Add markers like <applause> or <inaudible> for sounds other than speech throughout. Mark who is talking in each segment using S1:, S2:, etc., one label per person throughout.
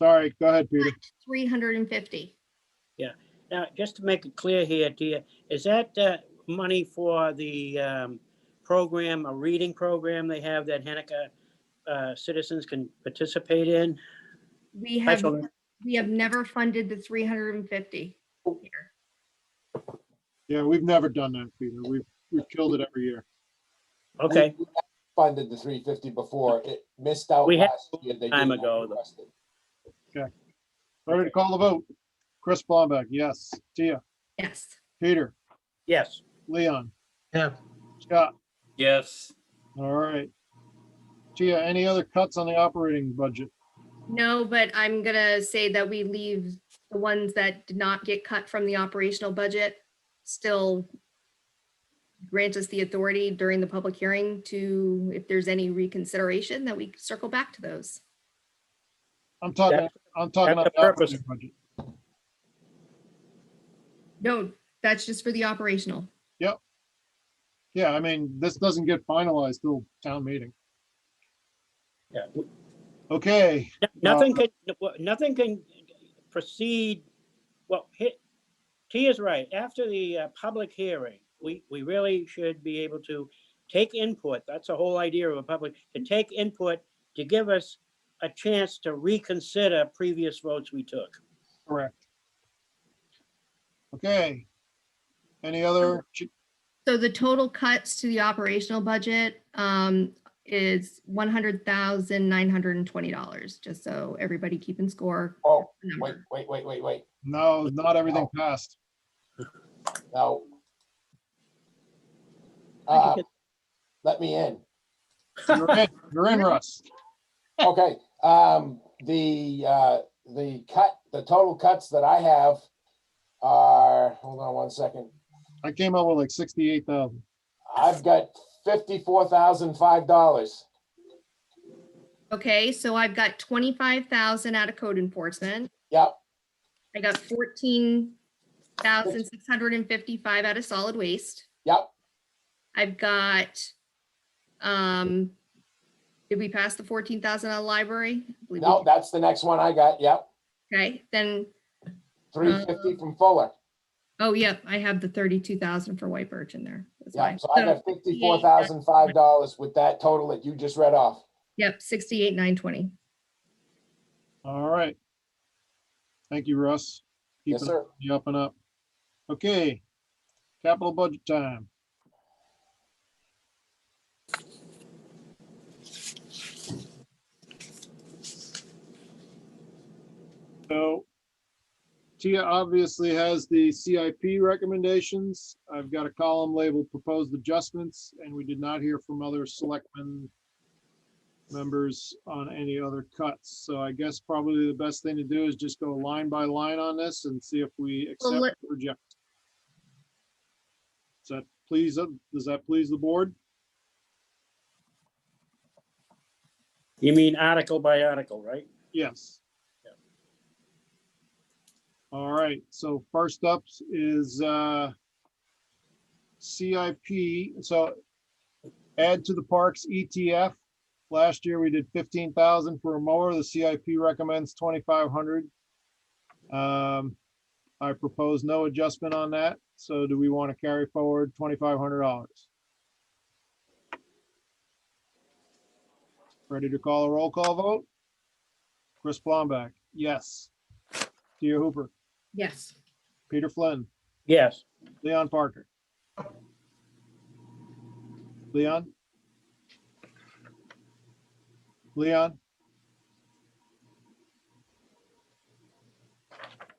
S1: Sorry, go ahead, Peter.
S2: 350.
S3: Now, just to make it clear here, dear, is that uh, money for the um, program, a reading program they have that Hanukkah uh, citizens can participate in?
S2: We have,
S3: Special-
S2: we have never funded the 350. here.
S1: Yeah, we've never done that, Peter. We've, we've killed it every year.
S3: Okay,
S4: We Funded the three fifty before. It missed out
S3: We had
S4: last year. They
S3: time
S4: did not
S3: ago, though.
S4: request it.
S1: All right, call the vote. Chris Blomberg, yes. Tia,
S2: Yes.
S1: Peter,
S3: yes.
S1: Leon,
S5: Yeah,
S1: Scott.
S6: Yes,
S1: All right. Tia, any other cuts on the operating budget?
S2: No, but I'm gonna say that we leave the ones that did not get cut from the operational budget still grant us the authority during the public hearing to, if there's any reconsideration, that we circle back to those.
S1: I'm talking,
S3: That's-
S1: I'm talking
S3: that's
S1: about the
S3: the purpose.
S1: operating budget.
S2: No, that's just for the operational.
S1: Yeah, I mean, this doesn't get finalized till town meeting.
S3: Yeah.
S1: Okay,
S3: No- Nothing can, nothing can proceed, well, he- Tia's right. After the uh, public hearing, we, we really should be able to take input. That's the whole idea of a public, to take input, to give us a chance to reconsider previous votes we took.
S1: correct. Okay. Any other, ch-
S2: So the total cuts to the operational budget um, is one hundred thousand nine hundred and twenty dollars, just so everybody keeping score.
S4: Oh, wait,
S2: number.
S4: wait, wait, wait, wait.
S1: no, not everything passed.
S4: No.
S3: I
S4: <laughs> Uh,
S3: think
S4: let me in.
S1: You're in, you're in, Russ.
S4: Okay, um, the, uh, the cut, the total cuts that I have are, hold on one second.
S1: I came up with like sixty-eight thousand.
S4: I've got fifty-four thousand five dollars.
S2: Okay, so I've got twenty-five thousand out of code enforcement.
S4: Yep,
S2: I got fourteen thousand six hundred and fifty-five out of solid waste.
S4: yep.
S2: I've got, um, did we pass the fourteen thousand on library? I believe we
S4: No,
S2: did.
S4: that's the next one I got. Yep.
S2: Okay, then,
S4: Three
S2: Mm-hmm.
S4: fifty from Fuller.
S2: oh, yep, I have the thirty-two thousand for White Birch in there. That's why.
S4: Yeah, so I got fifty-four thousand five dollars with that total that you just read off.
S2: Yep, sixty-eight, nine twenty.
S1: All right. Thank you, Russ. Keep
S4: Yes,
S1: it-
S4: sir.
S1: You up and up. Okay, capital budget time. So Tia obviously has the CIP recommendations. I've got a column labeled proposed adjustments, and we did not hear from other selectmen members on any other cuts. So I guess probably the best thing to do is just go line by line on this and see if we
S2: Well,
S1: accept or
S2: let-
S1: reject. Does that please, does that please the board?
S3: You mean article by article, right?
S1: Yes. All right, so first up is uh CIP, so add to the parks ETF. Last year, we did fifteen thousand for a mower. The CIP recommends twenty-five hundred. Um, I propose no adjustment on that, so do we want to carry forward twenty-five hundred dollars? Ready to call a roll call vote? Chris Blomback, yes. Tia Hooper,
S2: Yes.
S1: Peter Flynn,
S3: Yes.
S1: Leon Parker. Leon? Leon?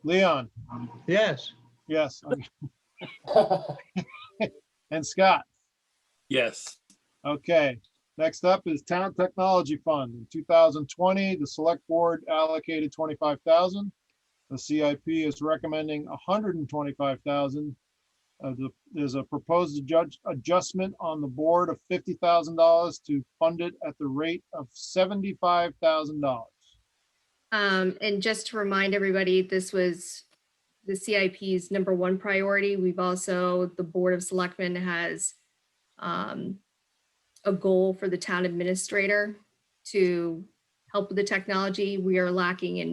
S1: Leon,
S5: yes.
S1: yes. okay.
S4: <laughs>
S1: And Scott,
S6: yes,
S1: okay. Next up is Town Technology Fund. In 2020, the Select Board allocated 25,000. The CIP is recommending hundred and twenty-five thousand. Uh, the, there's a proposed judge adjustment on the board of fifty thousand dollars to fund it at the rate of seventy-five thousand dollars.
S2: Um, and just to remind everybody, this was the CIP's number one priority. We've also, the Board of Selectmen has um, a goal for the town administrator to help with the technology. We are lacking in